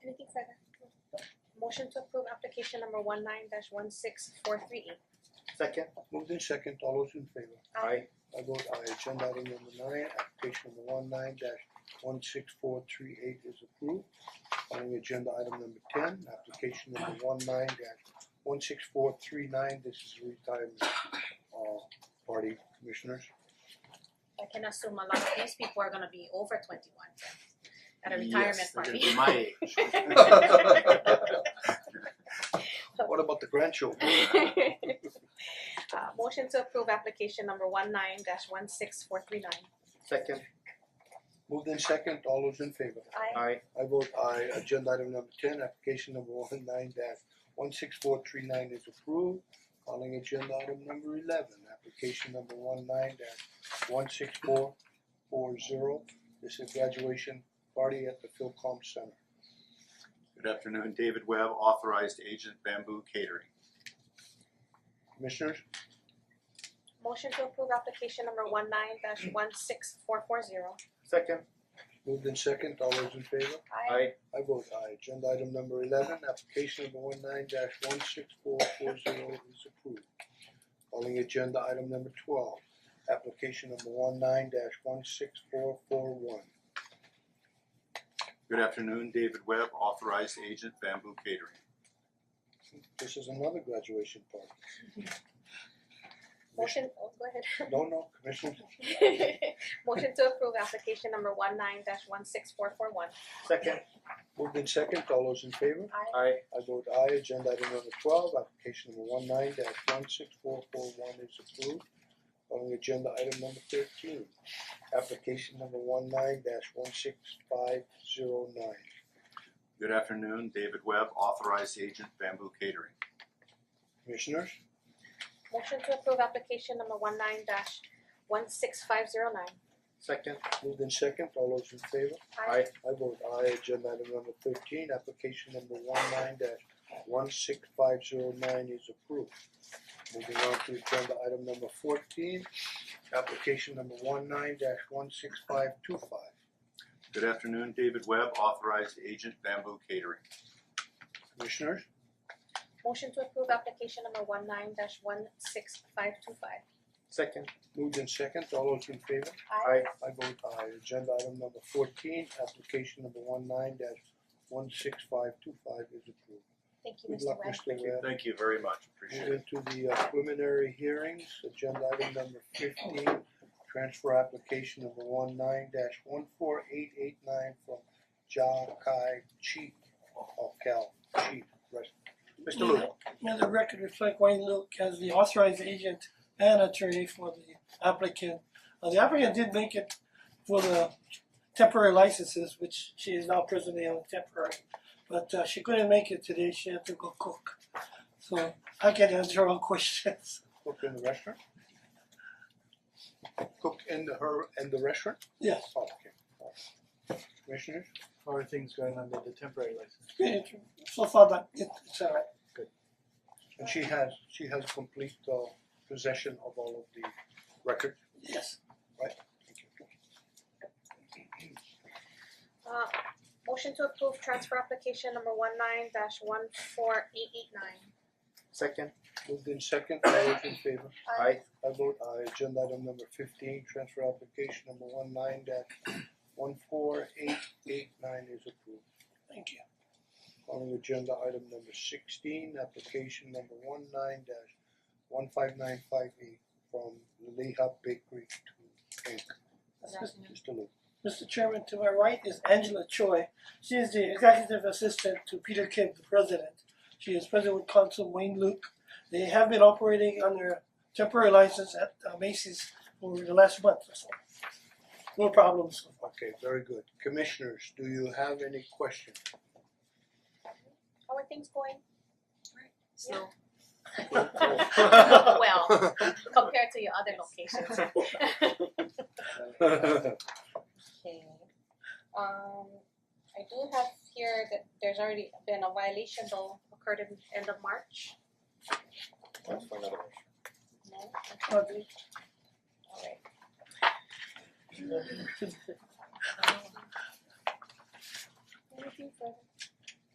Motion to approve application number one nine dash one six four three eight. Second. Moved in second, all those in favor? Aye. I vote aye, agenda item number nine, application number one nine dash one six four three eight is approved. Calling agenda item number ten, application number one nine dash one six four three nine, this is retirement uh party commissioners. I can assume a lot of these people are gonna be over twenty one at a retirement Yes, they're gonna party. be my age. What about the grandchildren? Uh motion to approve application number one nine dash one six four three nine. Second. Moved in second, all those in favor? Aye. Aye. I vote aye, agenda item number ten, application number one nine dash one six four three nine is approved. Calling agenda item number eleven, application number one nine dash one six four four zero. This is graduation party at the Philcom Center. Good afternoon, David Webb, authorized agent Bamboo Catering. Commissioners, Motion to approve application number one nine dash one six four four zero. Second. moved in second, all those in favor? Aye. I vote aye, agenda item number eleven, application number one nine dash one six four four zero is approved. Calling agenda item number twelve, application number one nine dash one six four four one. Good afternoon, David Webb, authorized agent Bamboo Catering. This is another graduation party. Motion, oh, go ahead. No, no, Commissioner, Motion to approve application number one nine dash one six four four one. Second. moved in second, all those in favor? Aye. Aye. I vote aye, agenda item number twelve, application number one nine dash one six four four one is approved. Calling agenda item number thirteen, application number one nine dash one six five zero nine. Good afternoon, David Webb, authorized agent Bamboo Catering. Commissioners, Motion to approve application number one nine dash one six five zero nine. Second. moved in second, all those in favor? Aye. I vote aye, agenda item number thirteen, application number one nine dash one six five zero nine is approved. Moving on to agenda item number fourteen, application number one nine dash one six five two five. Good afternoon, David Webb, authorized agent Bamboo Catering. Commissioners, Motion to approve application number one nine dash one six five two five. Second. moved in second, all those in favor? Aye. I vote aye, agenda item number fourteen, application number one nine dash one six five two five is approved. Thank you, Good Mr. luck, Wang. Mr. Webb. Thank you very much, appreciate it. Move into the uh, preliminary hearings, agenda item number fifteen, transfer application number one nine dash one four eight eight nine from Ja Kai Chi of Cal Chi, rest. Mr. Lu, May the record reflect Wayne Luke as the authorized agent and attorney for the applicant. Uh, the applicant did make it for the temporary licenses, which she is now presently on temporary. But uh, she couldn't make it today, she had to go cook. So I can answer all questions. cook in the restaurant? Cook in the her, in the restaurant? Yes, Oh, Okay, alright. Commissioners, How are things going under the temporary license? great. so far that it, it's alright. and she has, she has complete uh possession of all of the record, Yes, right? Thank you. Uh motion to approve transfer application number one nine dash one four eight eight nine. Second. Moved in second, all those in favor? Aye. I vote aye, agenda item number fifteen, transfer application number one nine dash one four eight eight nine is approved. thank you. Calling agenda item number sixteen, application number one nine dash one five nine five eight from Leha Bakery to Inc. Mr. Lu, Mr. Chairman, to my right is Angela Choi. She is the executive assistant to Peter Kim, the president. She is president with counsel Wayne Luke. They have been operating under temporary license at uh, Macy's for the last month or so. No problems. okay, very good. Commissioners, do you have any questions? Uh, How are things going? So Well, compared to your other locations. Okay, um I do have here that there's already been a violation though occurred in end of March. That's for another one. No, Uh, they- alright. Anything further?